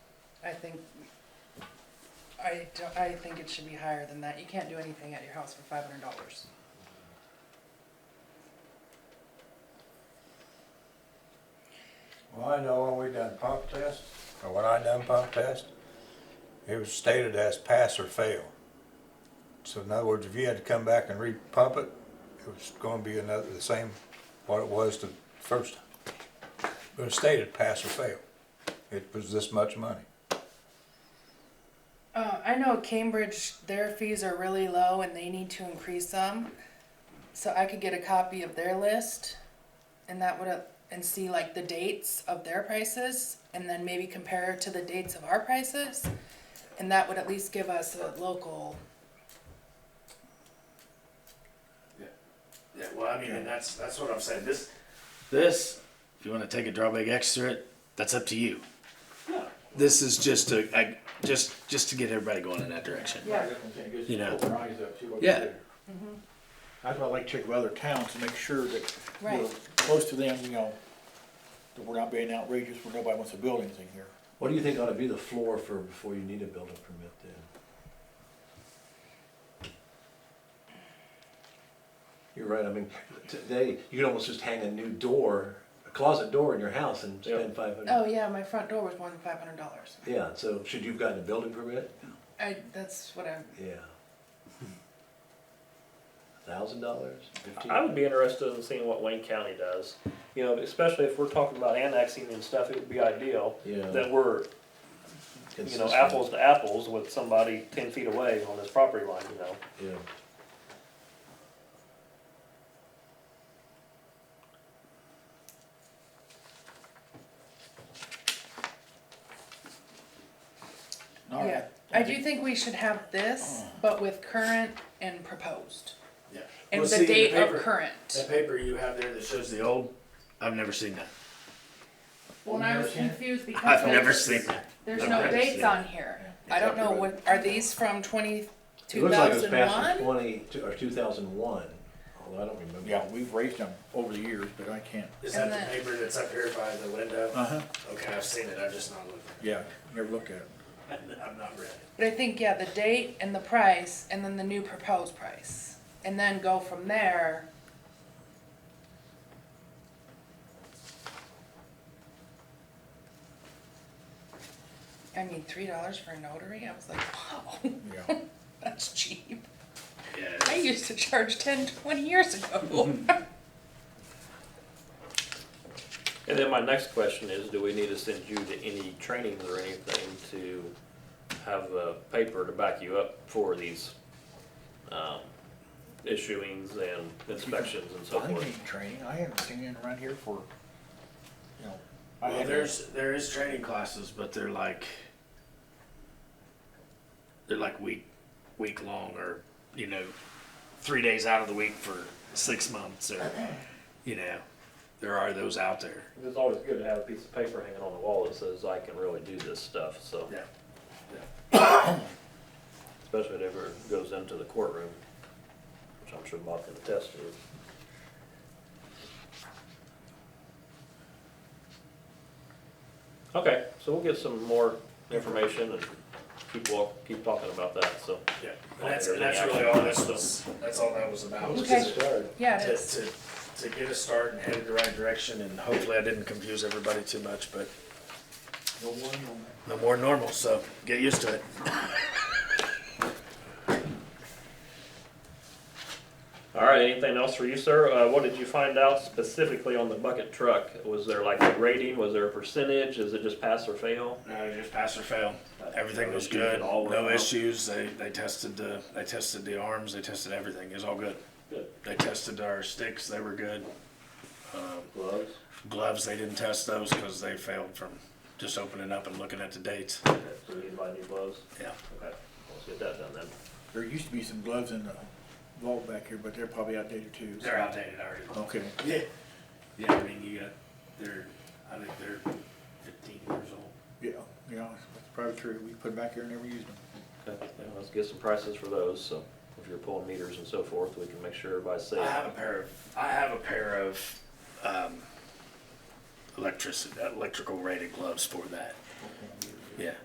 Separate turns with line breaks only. I think, I, don't- I think it should be higher than that. You can't do anything at your house for five hundred dollars.
Well, I know when we done pump test, or when I done pump test, it was stated as pass or fail. So in other words, if you had to come back and re-pump it, it was gonna be another, the same, what it was the first time. But it stated pass or fail. It was this much money.
Uh, I know Cambridge, their fees are really low and they need to increase them. So I could get a copy of their list and that would, and see like the dates of their prices and then maybe compare to the dates of our prices. And that would at least give us a local,
Yeah, well, I mean, and that's that's what I'm saying. This, this, if you want to take a drawback extra, that's up to you. This is just to, I, just just to get everybody going in that direction.
Yeah, that's what I'm saying, just
You know.
open your eyes up, see what
Yeah.
you do. That's why I like to check with other towns to make sure that we're
Right.
close to them, you know, that we're not being outrageous, where nobody wants to build anything here.
What do you think ought to be the floor for, before you need a building permit then? You're right, I mean, today, you can almost just hang a new door, a closet door in your house and spend five
oh
hundred.
yeah, my front door was more than five hundred dollars.
Yeah, so should you've gotten a building permit?
I, that's what I'm,
Yeah. Thousand dollars, fifteen?
I would be interested in seeing what Wayne County does. You know, especially if we're talking about annexing and stuff, it would be ideal
Yeah.
that we're, you know,
consistent.
apples to apples with somebody ten feet away on this property line, you know.
Yeah.
All
yeah.
right.
I do think we should have this, but with current and proposed.
Yeah.
And
Well,
the
see,
date of
paper-
current.
That paper you have there that shows the old, I've never seen that.
Well, and I was confused because.
I've
there's-
never seen that.
There's
I've
no
never
dates
seen
on here. I don't know, what, are these from twenty,
It
two
looks like it was
thousand
passed in
one?
twenty, or two thousand one, although I don't remember.
Yeah, we've raised them over the years, but I can't.
Is that
And
the
that-
paper that's up here by the window?
Uh-huh.
Okay, I've seen it, I've just not looked
Yeah, never looked at it.
at it. I've not read it.
But I think, yeah, the date and the price, and then the new proposed price, and then go from there. I mean, three dollars for a notary, I was like, wow,
Yeah.
that's cheap.
Yeah.
I
it's-
used to charge ten, twenty years ago.
And then my next question is, do we need to send you to any trainings or anything to have a paper to back you up for these, um, issuings and inspections and so
I
forth?
need training, I haven't seen it around here for, you know. I
Well,
had-
there's there is training classes, but they're like they're like week week long, or you know, three days out of the week for six months, or you know, there are those out there.
It's always good to have a piece of paper hanging on the wall that says, I can really do this stuff, so.
Yeah.
Especially if it ever goes into the courtroom, which I'm sure Bob can attest to. Okay, so we'll get some more information and keep walk, keep talking about that, so.
Yeah, and that's, and that's really all this was. That's all that was about. was
Okay.
to-
Yeah,
To,
it is.
to, to get us started and headed the right direction, and hopefully I didn't confuse everybody too much, but no more normal, so get used to it.
All right, anything else for you, sir? Uh, what did you find out specifically on the bucket truck? Was there like a rating, was there a percentage, is it just pass or fail?
No, just pass or fail. Everything was good, no issues. They, they tested the, they tested the arms, they tested everything. It was all good.
Good.
They tested our sticks, they were good.
Gloves?
Gloves, they didn't test those because they failed from just opening up and looking at the dates.
Okay, so you buy new gloves?
Yeah.
Okay, let's get that done then.
There used to be some gloves in the vault back here, but they're probably outdated too. so-
They're outdated already.
Okay.
Yeah. Yeah, I mean, you got, they're, I think they're fifteen years old.
Yeah, yeah, that's probably true. We put them back here and never used them.
Okay, yeah, let's get some prices for those, so if you're pulling meters and so forth, we can make sure everybody's safe.
I have a pair of, I have a pair of, um, electric, electrical rated gloves for that. Yeah.